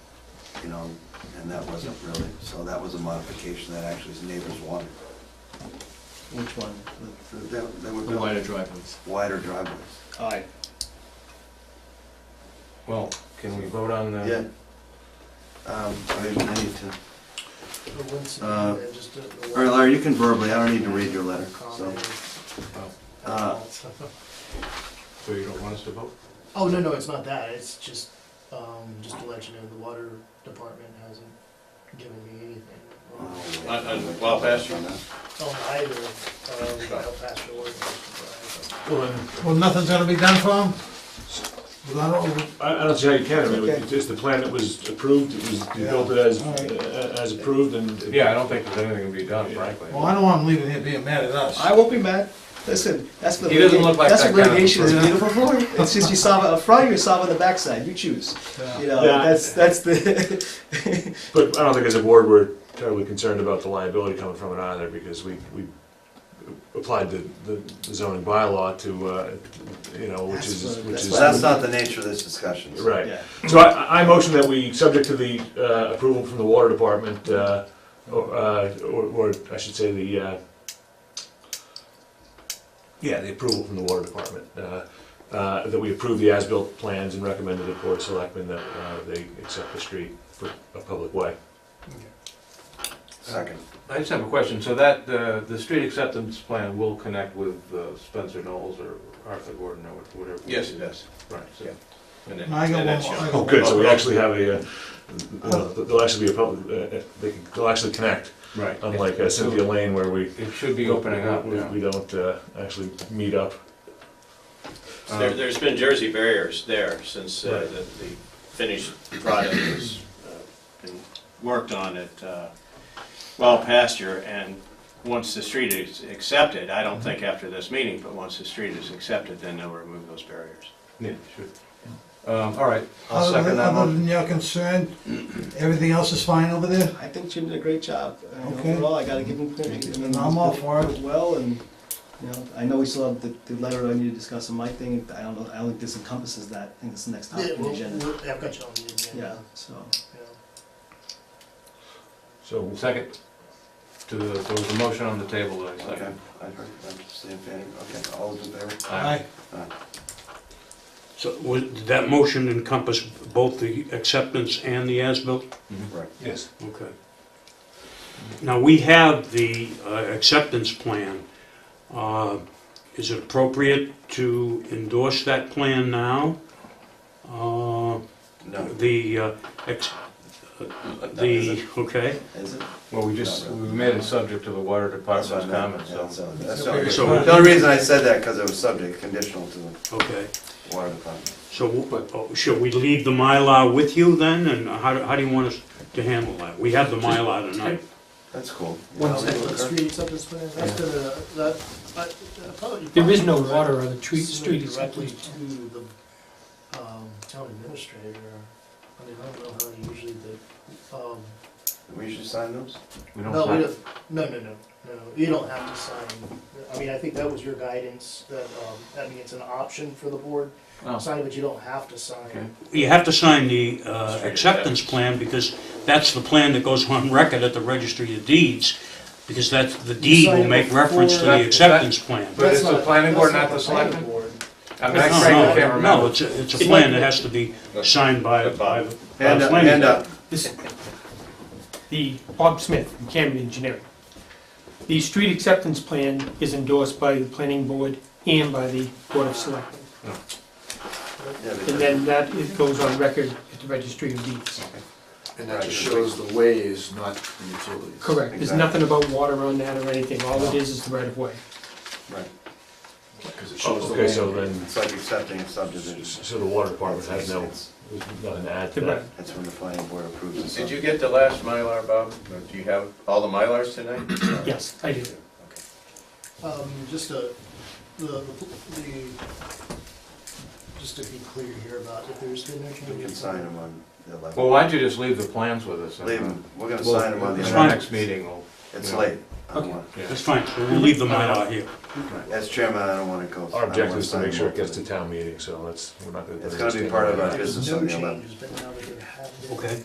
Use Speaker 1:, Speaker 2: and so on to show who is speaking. Speaker 1: you know, and that wasn't really, so that was a modification that actually his neighbors wanted.
Speaker 2: Which one?
Speaker 1: So That, that
Speaker 2: The
Speaker 1: would
Speaker 2: the wider
Speaker 1: build
Speaker 2: driveways.
Speaker 1: wider driveways.
Speaker 2: Aye.
Speaker 3: Well, can we vote on the?
Speaker 1: Yeah. Um, I I need to, Uh, all right, Larry, you can verbally, I don't need to read your letter, so. Uh,
Speaker 3: Oh, So you don't want us to vote?
Speaker 4: Oh, no, no, it's not that, it's just, um, just to let you know, the water department hasn't given me anything. Oh,
Speaker 1: uh,
Speaker 5: I- I- well, I'll pass you.
Speaker 4: either, um, Oh, I'll pass your word.
Speaker 6: Well, nothing's gonna be done for him? Without, all-
Speaker 7: I, I don't see how you can, I mean,
Speaker 6: Okay.
Speaker 7: it's just the plan that was approved, it was, you built it as, uh, as approved and.
Speaker 3: Yeah, I don't think there's anything to be done, frankly.
Speaker 6: well, I don't want him leaving here being mad at us.
Speaker 2: I won't be mad. Listen, that's the
Speaker 3: He doesn't look like
Speaker 2: that's
Speaker 3: that
Speaker 2: what
Speaker 3: kind of
Speaker 2: litigation is
Speaker 3: person.
Speaker 2: beautiful for. It's just you solve it up front or you solve it on the backside. You choose. You know,
Speaker 7: Yeah.
Speaker 2: that's that's the.
Speaker 7: But I don't think as a board, we're terribly concerned about the liability coming from it either, because we, we applied the, the zoning bylaw to, uh, you know, which
Speaker 2: That's
Speaker 7: is,
Speaker 2: what-
Speaker 7: which
Speaker 2: that's
Speaker 7: is.
Speaker 1: So that's not the nature of this discussion. so-
Speaker 7: Right,
Speaker 2: yeah.
Speaker 7: so I- I, I motion that we, subject to the, uh, approval from the water department, uh, or, uh, or, or I should say the, uh, yeah, the approval from the water department, uh, uh, that we approve the as-built plans and recommend to the board of selectmen that, uh, they accept the street for a public way.
Speaker 1: Second.
Speaker 3: I just have a question, so that, uh, the street acceptance plan will connect with uh, Spencer Knowles or Arthur Gordon or whatever?
Speaker 5: Yes, it does.
Speaker 3: Right, so,
Speaker 5: And
Speaker 6: And I
Speaker 5: that-
Speaker 6: got
Speaker 5: and
Speaker 6: one
Speaker 5: that's
Speaker 6: more,
Speaker 5: shown.
Speaker 6: I got
Speaker 7: Oh,
Speaker 6: one.
Speaker 7: good, so we actually have a, uh, well, there'll actually be a public, uh, uh, they can, they'll actually connect,
Speaker 3: right.
Speaker 7: unlike uh, Cynthia Lane where we.
Speaker 3: It should be opening up,
Speaker 7: we-
Speaker 3: yeah.
Speaker 7: We don't, uh, actually meet up.
Speaker 5: There, there's been Jersey barriers there since uh, the, the finished product was, uh, been worked on at, uh, Wild Pasture, and once the street is accepted, I don't think after this meeting, but once the street is accepted, then they'll remove those barriers.
Speaker 3: Yeah, sure. Um, all right, I'll
Speaker 6: Other
Speaker 3: second
Speaker 6: than,
Speaker 3: that
Speaker 6: other
Speaker 3: one.
Speaker 6: than your concern, everything else is fine over there?
Speaker 2: I think Jim did a great job. I mean,
Speaker 6: Okay.
Speaker 2: Overall, I got to give him credit. I mean,
Speaker 6: I'm all for it.
Speaker 2: he did Well, and you know, I know we still have the, the letter I need to discuss on my thing. I don't know. I don't think this encompasses that. I think it's the next
Speaker 4: Yeah,
Speaker 2: topic on the
Speaker 4: well,
Speaker 2: agenda.
Speaker 4: we'll- I've got you on the
Speaker 2: Yeah.
Speaker 4: agenda.
Speaker 2: So.
Speaker 4: Yeah.
Speaker 7: So,
Speaker 3: Second, to, the- there was a motion on the table that I
Speaker 1: Okay,
Speaker 3: second.
Speaker 1: I heard, I'm seeing Fanny, okay, all those in favor?
Speaker 6: Aye.
Speaker 8: So would did that motion encompass both the acceptance and the as-built?
Speaker 1: Right.
Speaker 7: yes,
Speaker 8: Okay. Now, we have the uh, acceptance plan. Uh, Is it appropriate to endorse that plan now? Uh,
Speaker 1: No.
Speaker 8: The, uh, ex-
Speaker 1: that
Speaker 8: the,
Speaker 1: isn't-
Speaker 8: okay,
Speaker 1: Is it?
Speaker 3: Well, we just, we made it subject to the water
Speaker 1: That's what I meant,
Speaker 3: department's comments,
Speaker 1: yeah,
Speaker 3: so.
Speaker 1: so that's not-
Speaker 8: So-
Speaker 1: The only reason I said that, because it was subject, conditional to the
Speaker 8: okay.
Speaker 1: water department.
Speaker 8: So uh, should we leave the Mylar with you then, and how do- how do you want us to handle that? We have the Mylar tonight.
Speaker 1: That's cool.
Speaker 9: One
Speaker 1: Yeah,
Speaker 9: second.
Speaker 1: okay.
Speaker 4: Street acceptance plan, that's gonna, that, I, I thought you.
Speaker 9: There is no
Speaker 4: probably-
Speaker 9: water on the tree, street
Speaker 4: Submitted directly
Speaker 9: acceptance.
Speaker 4: to the um, town administrator. I mean, I don't know how usually the, um,
Speaker 1: We should sign those?
Speaker 3: We don't
Speaker 4: no, we
Speaker 3: sign-
Speaker 4: don't, no, no, no, no, you don't have to sign. I mean, I think that was your guidance, that, um, I mean, it's an option for the board,
Speaker 3: Oh.
Speaker 4: sign it, but you don't have to
Speaker 3: Okay.
Speaker 4: sign.
Speaker 8: You have to sign the uh,
Speaker 5: Street
Speaker 8: acceptance
Speaker 5: acceptance.
Speaker 8: plan because that's the plan that goes on record at the registry of deeds, because that's, the deed
Speaker 4: sign
Speaker 8: will
Speaker 4: it
Speaker 8: make reference to
Speaker 4: before-
Speaker 8: the acceptance plan.
Speaker 3: But
Speaker 4: That's
Speaker 3: it's the
Speaker 4: not-
Speaker 3: planning
Speaker 4: that's
Speaker 3: board, not the
Speaker 4: planning
Speaker 3: selectmen?
Speaker 4: board.
Speaker 3: I mean,
Speaker 8: No,
Speaker 3: I
Speaker 8: no,
Speaker 3: frankly can't
Speaker 8: no,
Speaker 3: remember.
Speaker 8: No, it's a, it's a plan that has to be signed by, by the by
Speaker 1: Hand
Speaker 8: the
Speaker 1: up,
Speaker 8: planning
Speaker 3: uh,
Speaker 1: hand
Speaker 8: board.
Speaker 1: up.
Speaker 9: This, the Bob Smith from Camden Engineering. The street acceptance plan is endorsed by the planning board and by the board of selectmen.
Speaker 1: Yeah,
Speaker 9: And
Speaker 1: because-
Speaker 9: then that is, goes on record at the registry of deeds.
Speaker 1: And that just
Speaker 5: shows the ways, not the utilities.
Speaker 9: Correct, there's nothing about water on that or anything, all it is is the right of way.
Speaker 1: Right,
Speaker 5: Because it
Speaker 7: okay, so then,
Speaker 1: it's like accepting a subdivision.
Speaker 7: so the water department has no,
Speaker 1: It's-
Speaker 7: nothing to add to
Speaker 9: Right.
Speaker 7: that.
Speaker 1: That's when the planning board approves the
Speaker 5: Did you
Speaker 1: subdivision.
Speaker 5: get the last Mylar, Bob? Or Do you have all the Mylars
Speaker 3: uh,
Speaker 5: tonight?
Speaker 9: Yes, I do.
Speaker 4: Um, just a, the, the, the- just to be clear here about if there's been no changes.
Speaker 1: We can sign them on the
Speaker 3: Well,
Speaker 1: 11th.
Speaker 3: why don't you just leave the plans with us? and,
Speaker 1: Leave them, we're
Speaker 3: uh,
Speaker 1: gonna
Speaker 3: we'll-
Speaker 1: sign them on the
Speaker 8: It's
Speaker 1: 11th.
Speaker 8: fine.
Speaker 3: Next meeting, we'll,
Speaker 1: It's
Speaker 3: Yeah.
Speaker 1: late. I don't
Speaker 9: Okay.
Speaker 1: wanna-
Speaker 3: yeah.
Speaker 8: That's fine, so we'll leave the Mylar here.
Speaker 1: As chairman, I don't want to go. I
Speaker 7: Our
Speaker 1: don't
Speaker 7: objective
Speaker 1: wanna
Speaker 7: is to
Speaker 1: sign
Speaker 7: make sure it
Speaker 1: multiple.
Speaker 7: gets to town meeting, so that's, we're not gonna.
Speaker 1: It's gonna be part of our
Speaker 4: There's
Speaker 1: business
Speaker 4: no
Speaker 1: on the 11th.
Speaker 4: changes, but now that there have been.
Speaker 8: Okay.